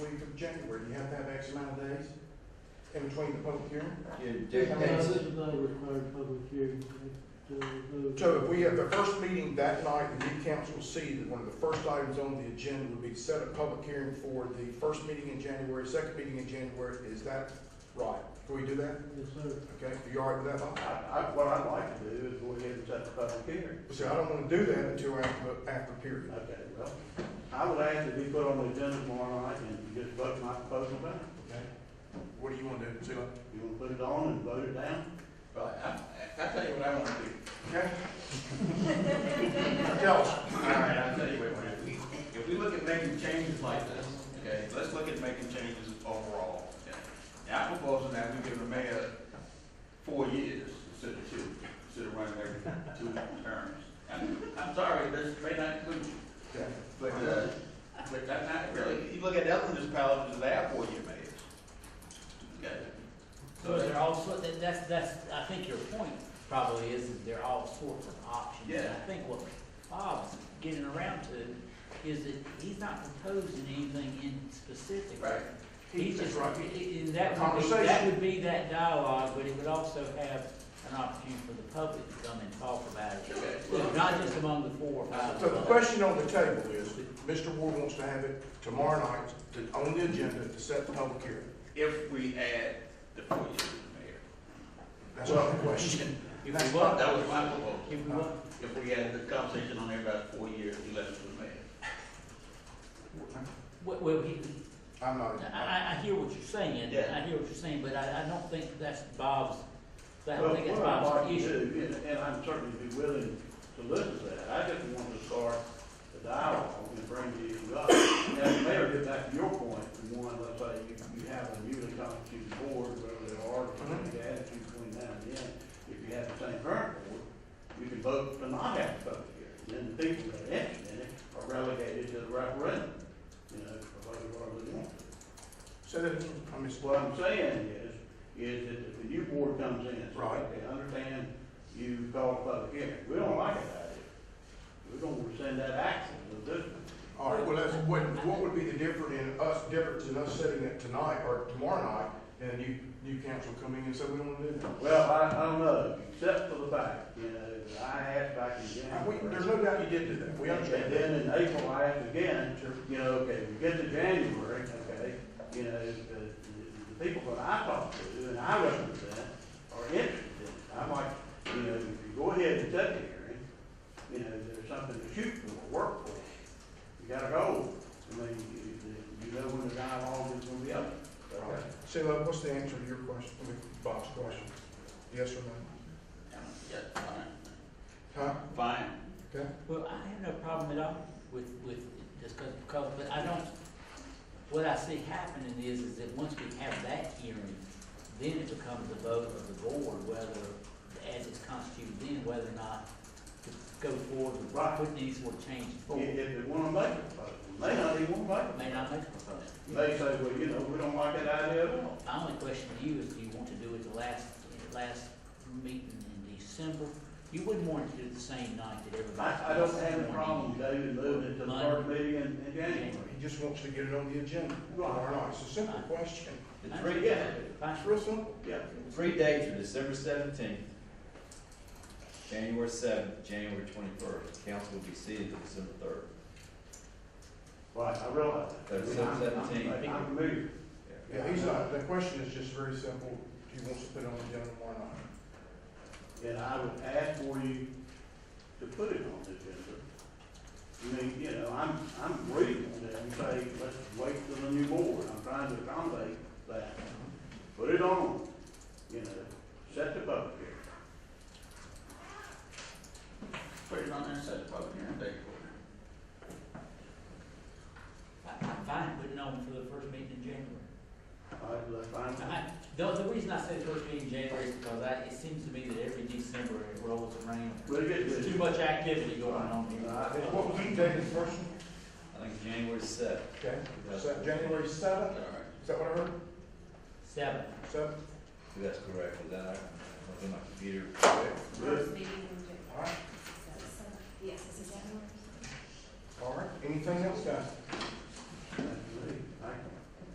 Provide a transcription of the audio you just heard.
in between the public hearing? It dictates dictates it. it. Doesn't require public hearing. It, uh, no. So if we have the first meeting that night, the new council will see that one of the first items on the agenda would be to set a public hearing for the first meeting in January, second meeting in January, is that right? Can we do that? Yes, sir. Okay, are you all right with that, Bob? I, I, what I'd like to do is go ahead and set the public hearing. Well, See, I don't wanna do that until after, after period. Okay, well, I would ask that we put on the agenda tomorrow night and just vote my proposal down. Okay. What do you wanna do, Sheila? You wanna put it on and vote it down? Right, I, I tell you what I want to do. Okay? Tell us. All right, I'll tell you what, we're gonna do. if we look at making changes like this, okay, let's look at making changes overall. okay? Now, I'm proposing that we give the mayor four years instead of two, instead of running every two terms. And I'm sorry, this may not include you, Okay. but, uh, but that's not really, you look at other municipalities that have four-year mayors. Okay? So they're all sort, that, that's, that's, I think your point probably is that there are all sorts of options. And Yeah. I think what Bob's getting around to is that he's not proposing anything in specific. Right. He's just, That's right. i- i- and that would be, that Conversation. would be that dialogue, but it would also have an opportunity for the public to come and talk about Okay. it. Not just among the four or five. So of the us. question on the table is, that Mr. Ward wants to have it tomorrow night, to, on the agenda, to set the public hearing. If we add the four years to the mayor. That's not the question. If That's we want, That was my proposal. if we want, If we had the conversation on there about four years, we left it to the mayor. well, well, he, I'm not. I, I, I hear what you're saying, Yeah. I hear what you're saying, but I, I don't think that's Bob's, I Well, don't think that's what I'd Bob's like to issue. do, And, and I'm certainly be willing to listen to that, I just want to start the dialogue and bring the issue up. And Mayor, get back to your point, the one, let's say, you, you have a newly constituted board, whatever they are, Mhm. the attitude between now and then, if you have the same current board, you can vote to not have a public hearing, then the people that are interested in it are relegated to the referendum, you know, for whatever they want. Say that, I mean, What I'm saying is, is that if the new board comes in, it's Right. right, they understand you called a public hearing, we don't like that idea. We're gonna rescind that action to this one. all right, well, that's, what, what would be the difference in us, difference in us setting it tonight or tomorrow night, and a new, new council coming in and say we don't wanna do that? Well, I, I don't know, except for the fact, you know, that I asked back in And we, there's January. no doubt you did do that, we And understand that. then in April, I asked again, you know, okay, we get to January, okay, you know, the, the people that I talk to and I represent are interested in it. I'm like, you know, if you go ahead and set the hearing, you know, there's something to shoot for, work for. You gotta go. I mean, you, you know when the dialogue is gonna be up. All right. Sheila, uh, what's the answer to your question, I mean, Bob's question? Yes or no? Yeah, fine. Huh? Fine. Okay? Well, I have no problem at all with, with discussing color, but I don't, what I see happening is, is that once we have that hearing, then it becomes the vote of the board, whether, as it's constituted then, whether or not to go forward with Right. put these or change If, forward. if they wanna make it, but they may not even wanna make it. May not make a proposal. They say, well, you know, we don't like that idea at all. My only question to you is, do you want to do it the last, last meeting in December? You wouldn't want to do it the same night that everybody. I, I don't have a problem, David, moving it to the first meeting in, in January. He just wants to get it on the agenda tomorrow night, it's a simple question, The That's three, Yeah, it's real simple. yeah. three dates are December seventeenth, January seventh, January twenty-first. Council will be seated on December third. Right, I realize that. That's seven seventeen. I'm- I'm familiar. Yeah, he's not, the question is just very simple, he wants to put it on the agenda tomorrow night. And I would ask for you to put it on the agenda. I mean, you know, I'm, I'm reasonable that you say, let's wait till the new board, I'm trying to accommodate that. Put it on, you know, set the public hearing. Put it on there and set it public hearing date for I- I'm fine putting on for the first meeting in January. All right, let's find out. I, the, the reason I said first meeting in January is because I, it seems to me that every December it rolls around. We'll get There's this. too much activity going on here. I- What was the date of the first one? I think January seventh. Okay, is that January seventh, it. All right. is that what I heard? Seven. Seventh? If that's correct, is that, I looked at my computer. Good. First meeting in January. All right, Yes, it's in January. all right, anything else, guys? That's